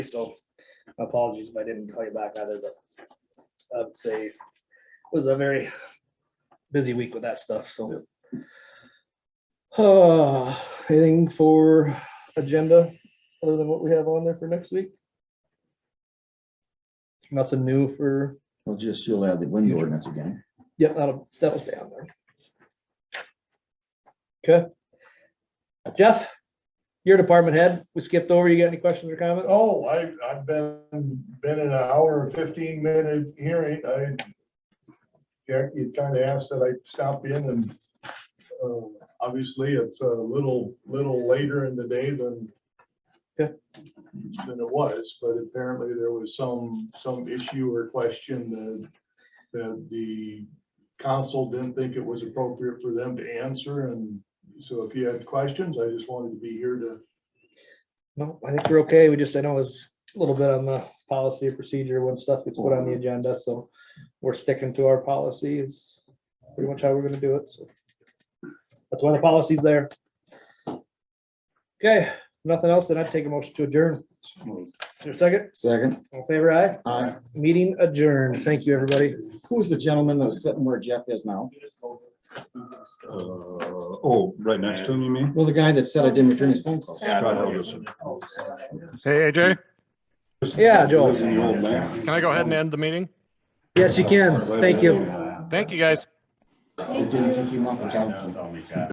so apologies if I didn't call you back either, but I'd say it was a very busy week with that stuff, so. Uh, anything for agenda other than what we have on there for next week? Nothing new for, Well, just you'll add the window Future. ordinance again. yep, that'll, that'll stay on there. Okay. Jeff, your department head, we skipped over. You got any questions or comments? Oh, I, I've been, been in an hour and fifteen minute hearing, I. Jack, you kind of asked that I stop in and, uh, obviously it's a little, little later in the day than. Yeah. Than it was, but apparently there was some, some issue or question that, that the council didn't think it was appropriate for them to answer, and so if you had questions, I just wanted to be here to No, I think we're okay. We just, I know it's a little bit on the policy and procedure when stuff gets put on the agenda, so we're sticking to our policy. It's pretty much how we're gonna do it, so. That's why the policy's there. Okay, nothing else, then I'd take a motion to adjourn. Is there a second, Second. all in favor aye. Aye. Meeting adjourned. Thank you, everybody. Who's Uh, the gentleman that was sitting where Jeff is now? Uh, oh, right next to him, you mean? Well, the guy that said I didn't return his phone call. Scott Helgeson. Hey, AJ, Yeah, He's Joel. the old man. can I go ahead and end the meeting? Yes, you can. Thank you. Thank you, guys. It didn't pick him up or something.